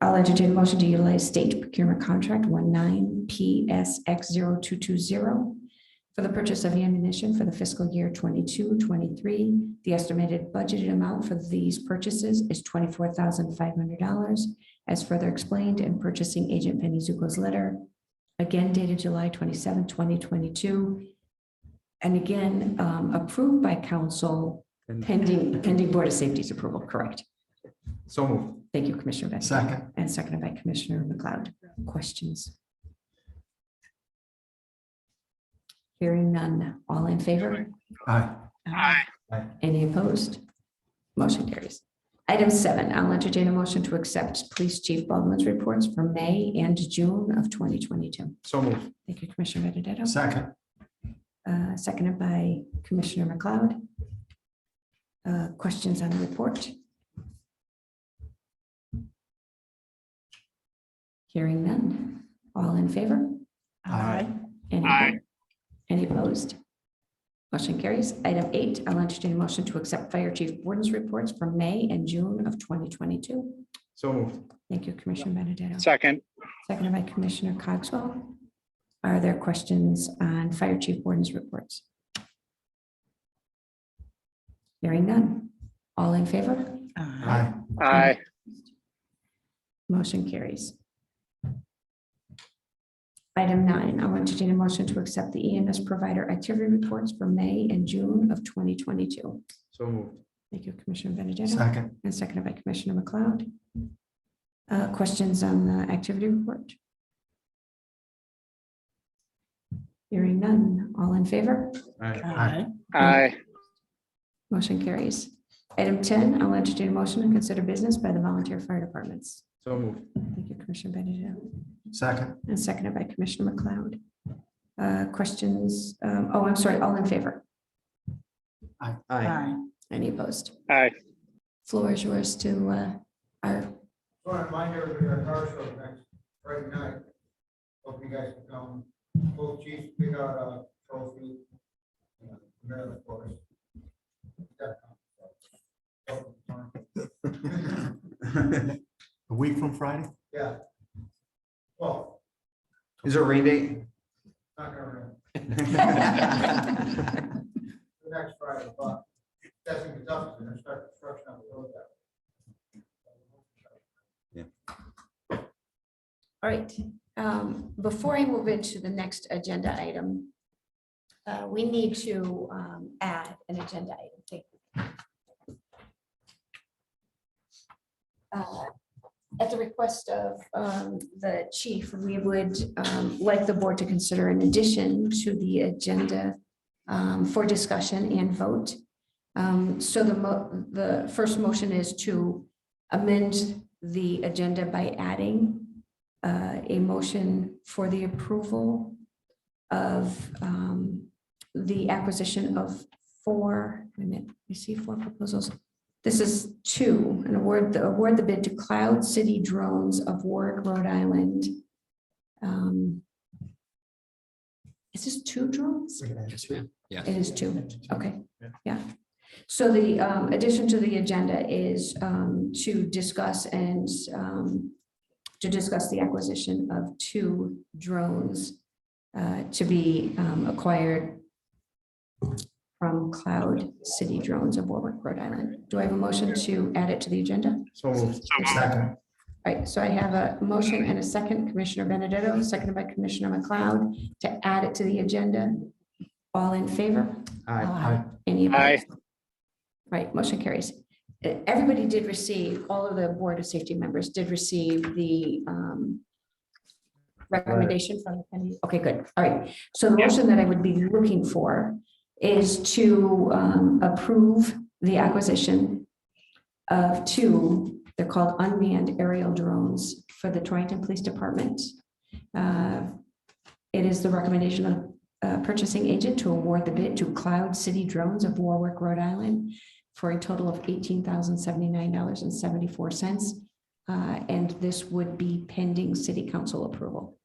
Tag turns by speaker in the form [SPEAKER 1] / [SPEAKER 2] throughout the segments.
[SPEAKER 1] I'll entertain a motion to utilize state procurement contract one nine PSX zero two two zero for the purchase of ammunition for the fiscal year 22-23. The estimated budgeted amount for these purchases is twenty-four thousand five hundred dollars as further explained in purchasing agent Penny Zuko's letter, again dated July 27, 2022, And again, um, approved by council
[SPEAKER 2] And-
[SPEAKER 1] pending, pending Board of Safety's approval, correct?
[SPEAKER 2] So moved.
[SPEAKER 1] Thank you, Commissioner Vasquez.
[SPEAKER 3] Second.
[SPEAKER 1] And seconded by Commissioner McLeod. Questions? Hearing none. All in favor?
[SPEAKER 3] Aye.
[SPEAKER 4] aye,
[SPEAKER 1] Any opposed? Motion carries. Item seven, I'll entertain a motion to accept Police Chief Baldwin's reports for May and June of 2022.
[SPEAKER 2] So moved.
[SPEAKER 1] Thank you, Commissioner Benedetto.
[SPEAKER 3] Second.
[SPEAKER 1] Uh, Seconded by Commissioner McLeod. Uh, Questions on the report? Hearing none. All in favor?
[SPEAKER 3] Aye.
[SPEAKER 1] Any
[SPEAKER 4] Aye.
[SPEAKER 1] oppo- Any opposed? Motion carries. Item eight, I'll entertain a motion to accept Fire Chief Borden's reports for May and June of 2022.
[SPEAKER 2] So moved.
[SPEAKER 1] Thank you, Commissioner Benedetto.
[SPEAKER 4] second,
[SPEAKER 1] Seconded by Commissioner Cogswell. Are there questions on Fire Chief Borden's reports? Hearing none. All in favor?
[SPEAKER 2] 哎
[SPEAKER 3] Aye.
[SPEAKER 4] aye,
[SPEAKER 1] Motion carries. Item nine, I'll entertain a motion to accept the EMS provider activity reports for May and June of 2022.
[SPEAKER 2] So moved.
[SPEAKER 1] Thank you, Commissioner Benedetto.
[SPEAKER 3] Second.
[SPEAKER 1] And seconded by Commissioner McLeod. Uh, Questions on the activity report? Hearing none. All in favor?
[SPEAKER 2] Aye.
[SPEAKER 3] Aye.
[SPEAKER 4] aye,
[SPEAKER 1] Motion carries. Item 10, I'll entertain a motion and consider business by the volunteer fire departments.
[SPEAKER 2] So moved.
[SPEAKER 1] Thank you, Commissioner Benedetto.
[SPEAKER 3] Second.
[SPEAKER 1] And seconded by Commissioner McLeod. Uh, Questions? Um, Oh, I'm sorry, all in favor?
[SPEAKER 2] Aye.
[SPEAKER 1] Any opposed?
[SPEAKER 4] aye.
[SPEAKER 1] Floor is yours to uh, our,
[SPEAKER 5] So I remind everybody, our car show is next Friday night. Hope you guys can come. Both chiefs pick out a trophy. uh, Maryland, of course.
[SPEAKER 3] A week from Friday?
[SPEAKER 5] Yeah. Well,
[SPEAKER 2] Is there a rain date?
[SPEAKER 5] not gonna remember
[SPEAKER 2] Aye.
[SPEAKER 5] the next Friday, but that's in Kentucky, they're gonna start construction on the road that.
[SPEAKER 1] all right. Um, Before I move into the next agenda item, uh, we need to um, add an agenda item. Thank you. Uh, At the request of um, the chief, we would um, like the board to consider in addition to the agenda um, for discussion and vote. Um, So the mo- the first motion is to amend the agenda by adding uh, a motion for the approval of um, the acquisition of four, wait a minute, you see four proposals. This is two, an award, the award the bid to Cloud City Drones of Warwick, Rhode Island. Um, Is this two drones? It is two, okay, yeah. So the um, addition to the agenda is um, to discuss and um, to discuss the acquisition of two drones uh, to be um, acquired from Cloud City Drones of Warwick, Rhode Island. Do I have a motion to add it to the agenda?
[SPEAKER 2] So moved.
[SPEAKER 4] So moved.
[SPEAKER 3] Second.
[SPEAKER 1] All right, so I have a motion and a second, Commissioner Benedetto, seconded by Commissioner McLeod, to add it to the agenda. All in favor?
[SPEAKER 2] Aye.
[SPEAKER 3] Aye.
[SPEAKER 1] Any
[SPEAKER 4] Aye.
[SPEAKER 1] opposed? Right, motion carries. Uh, Everybody did receive, all of the Board of Safety members did receive the um, recommendation from the committee. Okay, good. All right. So the motion that I would be looking for is to um, approve the acquisition of two, they're called unmanned aerial drones for the Torrington Police Department. Uh, It is the recommendation of uh, purchasing agent to award the bid to Cloud City Drones of Warwick, Rhode Island for a total of eighteen thousand seventy-nine dollars and seventy-four cents. Uh, And this would be pending city council approval.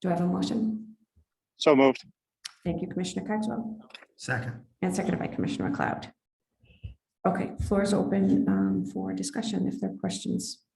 [SPEAKER 1] Do I have a motion?
[SPEAKER 4] So moved,
[SPEAKER 1] Thank you, Commissioner Cogswell,
[SPEAKER 3] Second.
[SPEAKER 1] and seconded by Commissioner McLeod. Okay, floor is open um, for discussion if there are questions.